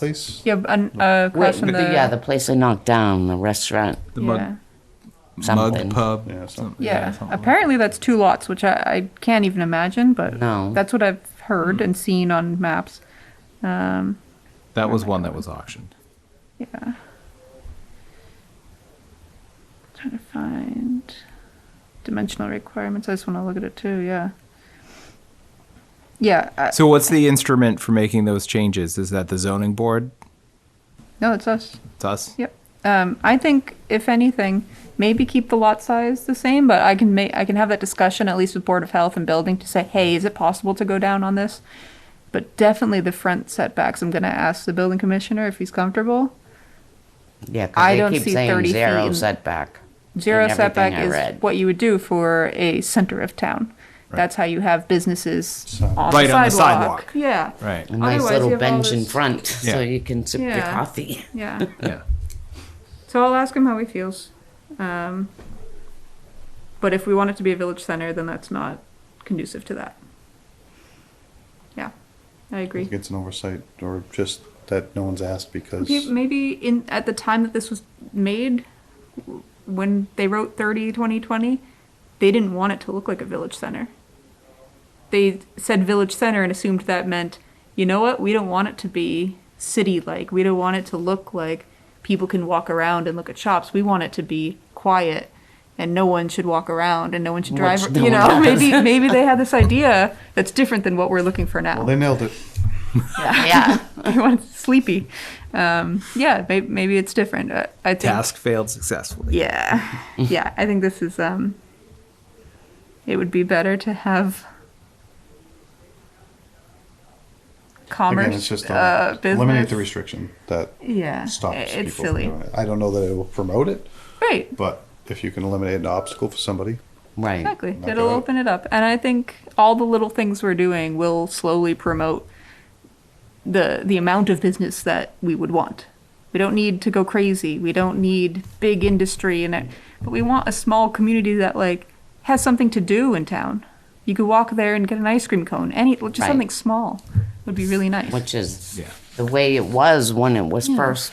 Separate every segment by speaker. Speaker 1: place?
Speaker 2: Yeah, and, uh,
Speaker 3: Wait,
Speaker 2: across from
Speaker 3: the-
Speaker 2: the,
Speaker 3: yeah, the place they knocked down, the restaurant.
Speaker 4: The mud,
Speaker 3: Something.
Speaker 4: mud pub.
Speaker 1: Yeah, something.
Speaker 4: something-
Speaker 2: yeah.
Speaker 4: something like that.
Speaker 2: Apparently that's two lots, which I, I can't even imagine, but
Speaker 3: No.
Speaker 2: that's what I've heard
Speaker 4: Hmm.
Speaker 2: and seen on maps. Um,
Speaker 4: That was one that was auctioned.
Speaker 2: yeah. Trying to find dimensional requirements. I just want to look at it too. Yeah. Yeah. I,
Speaker 4: So what's the instrument for making those changes? Is that the zoning board?
Speaker 2: no, it's us.
Speaker 4: It's us?
Speaker 2: Yep. Um, I think if anything, maybe keep the lot size the same, but I can make, I can have that discussion at least with Board of Health and Building to say, hey, is it possible to go down on this? But definitely the front setbacks, I'm gonna ask the building commissioner if he's comfortable.
Speaker 3: Yeah, 'cause
Speaker 2: I
Speaker 3: they
Speaker 2: don't
Speaker 3: keep
Speaker 2: see
Speaker 3: saying
Speaker 2: 30
Speaker 3: zero
Speaker 2: feet in-
Speaker 3: setback. in
Speaker 2: Zero
Speaker 3: everything
Speaker 2: setback
Speaker 3: I read.
Speaker 2: is what you would do for a center of town. That's how you have businesses on
Speaker 4: Right on
Speaker 2: the
Speaker 4: the
Speaker 2: sidewalk.
Speaker 4: sidewalk.
Speaker 2: Yeah,
Speaker 4: Right.
Speaker 3: A nice
Speaker 2: Otherwise, you
Speaker 3: little
Speaker 2: have all
Speaker 3: bench in
Speaker 2: this-
Speaker 3: front so
Speaker 4: Yeah.
Speaker 3: you can sip your
Speaker 2: Yeah.
Speaker 3: coffee.
Speaker 2: yeah.
Speaker 4: Yeah.
Speaker 2: So I'll ask him how he feels. Um, but if we want it to be a village center, then that's not conducive to that. Yeah, I agree.
Speaker 1: It's an oversight or just that no one's asked because
Speaker 2: Pe- Maybe in at the time that this was made, w- when they wrote 30 2020, they didn't want it to look like a village center. They said village center and assumed that meant, you know what, we don't want it to be city like. We don't want it to look like people can walk around and look at shops. We want it to be quiet and no one should walk around and no one should drive.
Speaker 3: Which no
Speaker 2: you
Speaker 3: one
Speaker 2: know,
Speaker 3: does.
Speaker 2: maybe maybe they had this idea that's different than what we're looking for now
Speaker 1: well, they nailed it.
Speaker 3: Yeah.
Speaker 2: everyone's sleepy. Um, yeah, maybe, maybe it's different. Uh, I think,
Speaker 4: Task failed successfully.
Speaker 2: Yeah, yeah. I think this is. Um, it would be better to have commerce.
Speaker 1: Again, it's just a-
Speaker 2: uh, business.
Speaker 1: eliminate the restriction that
Speaker 2: Yeah,
Speaker 1: stops
Speaker 2: i-
Speaker 1: people
Speaker 2: it's
Speaker 1: from
Speaker 2: silly.
Speaker 1: doing it. I don't know that it will promote it,
Speaker 2: Right.
Speaker 1: but if you can eliminate an obstacle for somebody,
Speaker 3: Right.
Speaker 2: Exactly.
Speaker 1: Not
Speaker 2: It'll
Speaker 1: bad.
Speaker 2: open it up. And I think all the little things we're doing will slowly promote the the amount of business that we would want. We don't need to go crazy. We don't need big industry and it, but we want a small community that like has something to do in town. You could walk there and get an ice cream cone. Any just
Speaker 3: Right.
Speaker 2: something small would be really nice.
Speaker 3: Which is
Speaker 4: Yeah.
Speaker 3: the way it was when it was first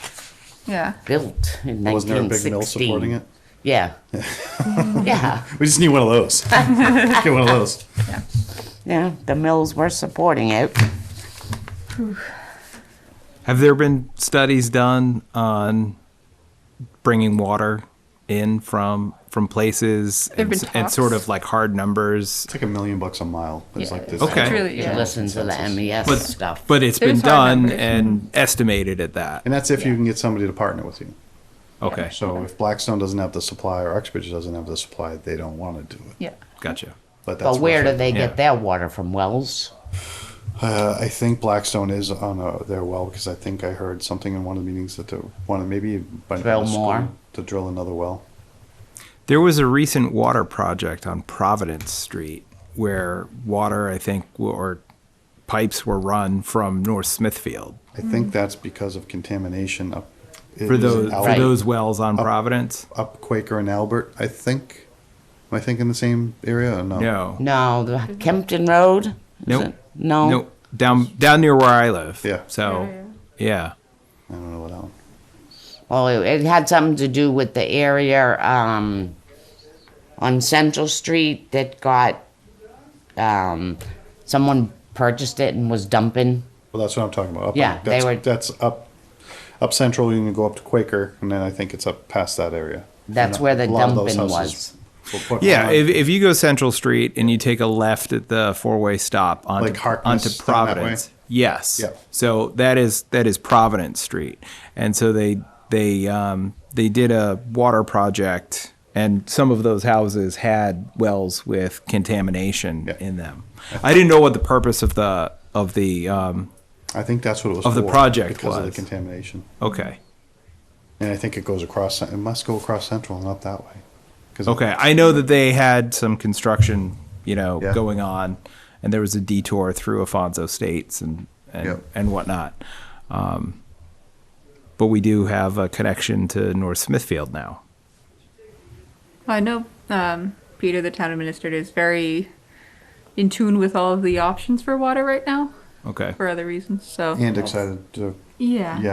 Speaker 2: yeah.
Speaker 3: built in
Speaker 1: wasn't there a
Speaker 3: 1916.
Speaker 1: big mill supporting it?
Speaker 3: Yeah. yeah.
Speaker 1: We just need one of those. Get one of those.
Speaker 3: Yeah. The mills were supporting it.
Speaker 4: Have there been studies done on bringing water in from from places
Speaker 2: There've
Speaker 4: and,
Speaker 2: been
Speaker 4: s- and sort
Speaker 2: talks.
Speaker 4: of like hard numbers?
Speaker 1: It's like a million bucks a mile. It's like this.
Speaker 4: Okay.
Speaker 2: It's really
Speaker 3: You
Speaker 2: yeah.
Speaker 3: listen to the MES
Speaker 4: But
Speaker 3: stuff.
Speaker 4: but it's
Speaker 2: There's
Speaker 4: been
Speaker 2: hard
Speaker 4: done
Speaker 2: numbers. Mm-hmm.
Speaker 4: and estimated at that.
Speaker 1: And that's if you can get somebody to partner with you.
Speaker 4: Okay.
Speaker 1: So if Blackstone doesn't have the supply or Uxbridge doesn't have the supply, they don't want to do it.
Speaker 2: Yeah.
Speaker 4: Gotcha.
Speaker 1: But that's
Speaker 3: but where do
Speaker 1: worth it.
Speaker 3: they
Speaker 4: Yeah.
Speaker 3: get their water from? Wells?
Speaker 1: Uh, I think Blackstone is on uh their well because I think I heard something in one of the meetings that they want to maybe by
Speaker 3: Drill
Speaker 1: the school
Speaker 3: more.
Speaker 1: to drill another well.
Speaker 4: There was a recent water project on Providence Street where water, I think, or pipes were run from North Smithfield
Speaker 1: I think that's because of contamination up it
Speaker 4: for
Speaker 1: is
Speaker 4: those
Speaker 1: out- Oh.
Speaker 4: for those wells on Providence.
Speaker 1: up Quaker and Albert. I think. Am I thinking the same area or no?
Speaker 4: No,
Speaker 3: No, the Kempton Road? Is
Speaker 4: Nope.
Speaker 3: it? No.
Speaker 4: no, down down near where I live.
Speaker 1: Yeah.
Speaker 4: So, yeah.
Speaker 1: I don't know what that one.
Speaker 3: Well, it, it had something to do with the area um, on Central Street that got um, someone purchased it and was dumping.
Speaker 1: Well, that's what I'm talking about. Up
Speaker 3: Yeah,
Speaker 1: on,
Speaker 3: they
Speaker 1: that's,
Speaker 3: were-
Speaker 1: that's up up central. You can go up to Quaker, and then I think it's up past that area.
Speaker 3: That's
Speaker 1: And
Speaker 3: where the
Speaker 1: a lot of those
Speaker 3: dumping
Speaker 1: houses were put
Speaker 4: Yeah,
Speaker 1: on,
Speaker 4: if, if you go Central Street and you take a left at the four-way stop onto,
Speaker 1: Like Harkness,
Speaker 4: onto
Speaker 1: down that way?
Speaker 4: Providence, yes.
Speaker 1: Yeah.
Speaker 4: So that is that is Providence Street, and so they they um, they did a water project, and some of those houses had wells with contamination
Speaker 1: Yeah.
Speaker 4: in them. I didn't know what the purpose of the of the um,
Speaker 1: I think that's what it was
Speaker 4: of the
Speaker 1: for,
Speaker 4: project
Speaker 1: because of the
Speaker 4: was.
Speaker 1: contamination.
Speaker 4: okay.
Speaker 1: And I think it goes across. It must go across Central and up that way. 'Cause it-
Speaker 4: Okay, I know that they had some construction, you know,
Speaker 1: Yeah.
Speaker 4: going on, and there was a detour through Afonso States and and,
Speaker 1: Yep.
Speaker 4: and whatnot. Um, but we do have a connection to North Smithfield now.
Speaker 2: I know um, Peter, the town administrator, is very in tune with all of the options for water right now
Speaker 4: Okay,
Speaker 2: for other reasons. So
Speaker 1: And excited to
Speaker 5: Yeah.
Speaker 2: Yeah,